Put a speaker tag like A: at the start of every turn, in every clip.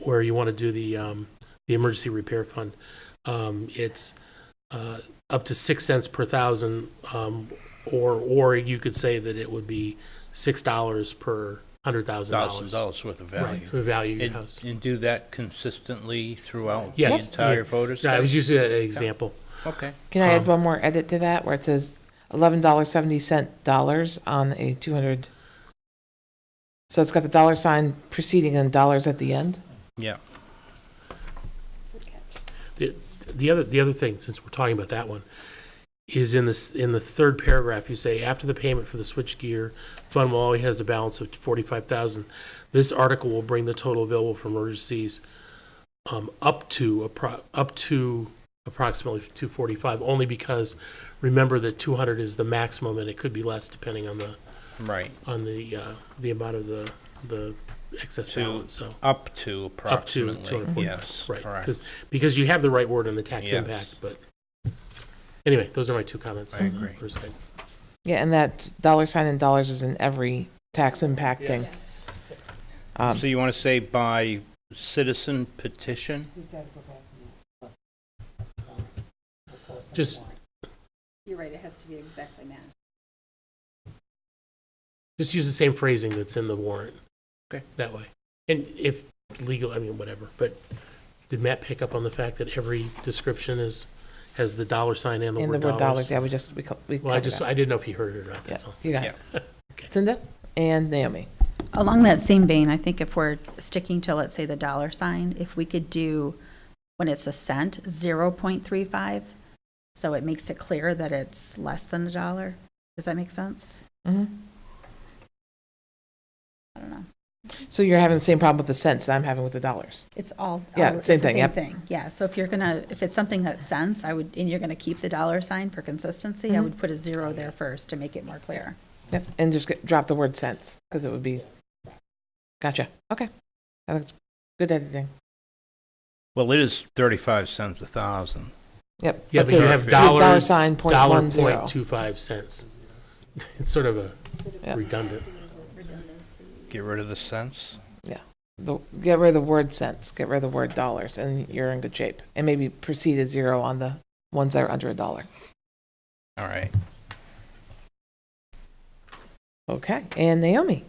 A: where you want to do the, um, the emergency repair fund. Um, it's, uh, up to six cents per thousand, um, or, or you could say that it would be six dollars per hundred thousand
B: thousand
A: dollars.
B: dollars worth of value.
A: Right, the value of your
B: And,
A: house.
B: and do that consistently throughout the
A: Yes.
B: entire voter
A: Yeah, I was
B: study?
A: using that example.
B: Okay,
C: Can I add
A: Um,
C: one more edit to that where it says eleven dollars seventy cent dollars on a two hundred? So it's got the dollar sign preceding and dollars at the end.
B: yeah.
A: The, the other, the other thing, since we're talking about that one, is in this, in the third paragraph, you say, after the payment for the switchgear, fund will always has a balance of forty-five thousand. This article will bring the total available for emergencies, um, up to, appro- up to approximately two forty-five, only because, remember that two hundred is the maximum, and it could be less depending on the,
B: Right,
A: on the, uh, the amount of the, the excess
B: To
A: balance, so.
B: up to
A: Up to
B: approximately,
A: 240.
B: yes,
A: Right,
B: correct.
A: because, because you have the right word on the tax
B: Yes.
A: impact, but, anyway, those are my two comments.
B: I
A: on the
B: agree.
A: first item.
C: Yeah, and that dollar sign and dollars is in every tax impacting. Um,
B: So you want to say by citizen petition?
A: Just,
D: You're right, it has to be exactly matched.
A: just use the same phrasing that's in the warrant.
B: Okay.
A: That way. And if legal, I mean, whatever, but did Matt pick up on the fact that every description is, has the dollar sign and the
C: in the
A: word
C: word dollars,
A: dollars?
C: yeah, we just, we. co- we
A: Well, I
C: covered
A: just,
C: that.
A: I didn't know if he heard it or not,
C: Yeah,
A: that's all.
C: You got it.
A: Okay.
C: Cinda and Naomi.
D: Along that same vein, I think if we're sticking to, let's say, the dollar sign, if we could do, when it's a cent, zero point three five, so it makes it clear that it's less than a dollar. Does that make sense?
C: Mhm.
D: I don't know.
C: So you're having the same problem with the cents that I'm having with the dollars.
D: It's all.
C: Yeah,
D: all- it's
C: same
D: the
C: thing, yep.
D: thing, yeah. So if you're gonna, if it's something that's cents, I would, and you're gonna keep the dollar sign for consistency, I
C: Mhm.
D: would put a zero there first to make it more clear.
C: Yep, and just get- drop the word cents, because it would be, gotcha, okay. That's good editing.
B: Well, it is thirty-five cents a thousand.
C: Yep.
A: Yeah,
C: that
A: but you
C: says
A: have
B: the
A: dollar.
C: dollar sign point one
A: Dollar
C: zero.
A: point two five cents. It's sort of a
C: Yeah.
A: redundant.
B: Get rid of the cents?
C: The- Get rid of the word cents, get rid of the word dollars, and you're in good shape. And maybe proceed at zero on the ones that are under a dollar.
B: All right.
C: Okay, and Naomi,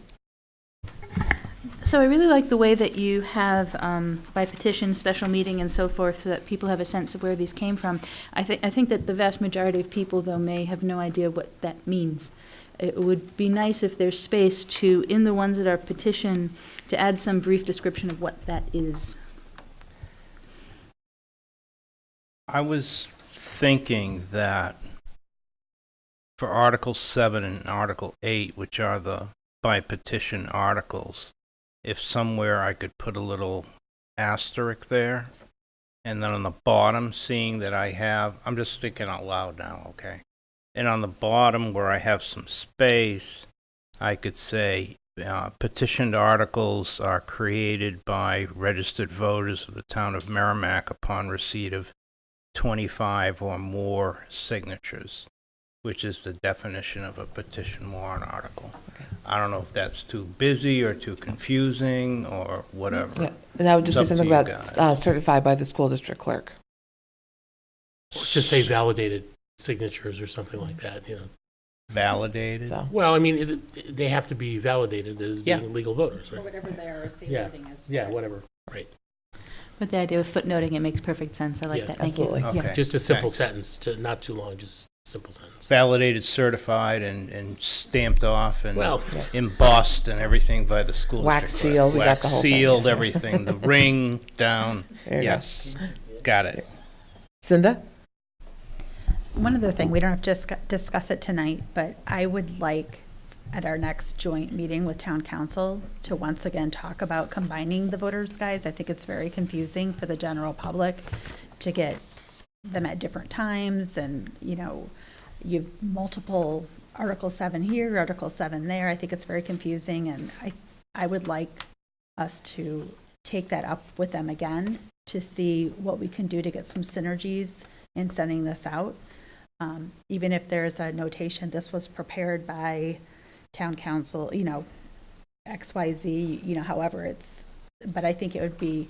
E: So I really like the way that you have um, by petition, special meeting, and so forth, so that people have a sense of where these came from. I think I think that the vast majority of people, though, may have no idea what that means. It would be nice if there's space to, in the ones that are petition, to add some brief description of what that is.
B: I was thinking that for Article 7 and Article 8, which are the by petition articles, if somewhere I could put a little asterisk there. And then on the bottom, seeing that I have, I'm just thinking out loud now, okay? And on the bottom where I have some space, I could say uh, petitioned articles are created by registered voters of the town of Merrimack upon receipt of 25 or more signatures, which is the definition of a petition warrant article. I don't know if that's too busy or too confusing or
C: yeah,
B: whatever.
C: and I would just say
B: It's up to
C: something
B: you
C: about
B: guys.
C: uh, certified by the school district clerk.
A: Or Just say validated signatures or something like that, you know.
B: Validated.
C: So,
A: Well, I mean, it- they have to be validated as
B: Yeah.
A: being legal voters,
D: Or
A: right?
D: whatever they are
A: Yeah.
D: saving as.
A: Yeah, whatever.
E: With the idea of footnoting, it makes perfect sense. I like
A: Yeah,
E: that. Thank you.
C: absolutely.
E: Yeah.
B: Okay.
A: Just a simple
B: Thanks.
A: sentence, to, not too long, just simple sentence.
B: Validated, certified, and, and stamped off and
A: Well,
C: Yeah.
B: embossed and everything by the school
C: Wax
B: district clerk.
C: sealed, we got
B: Wax
C: the whole thing.
B: Sealed, everything, the ring down,
C: there you go.
B: yes, got it.
C: Cinda?
D: One other thing, we don't have to discuss, discuss it tonight, but I would like at our next joint meeting with town council to once again talk about combining the voters' guides. I think it's very confusing for the general public to get them at different times and, you know, you have multiple Article seven here, Article seven there. I think it's very confusing and I, I would like us to take that up with them again to see what we can do to get some synergies in sending this out. Um, Even if there's a notation, this was prepared by town council, you know, X, Y, Z, you know, however it's, but I think it would be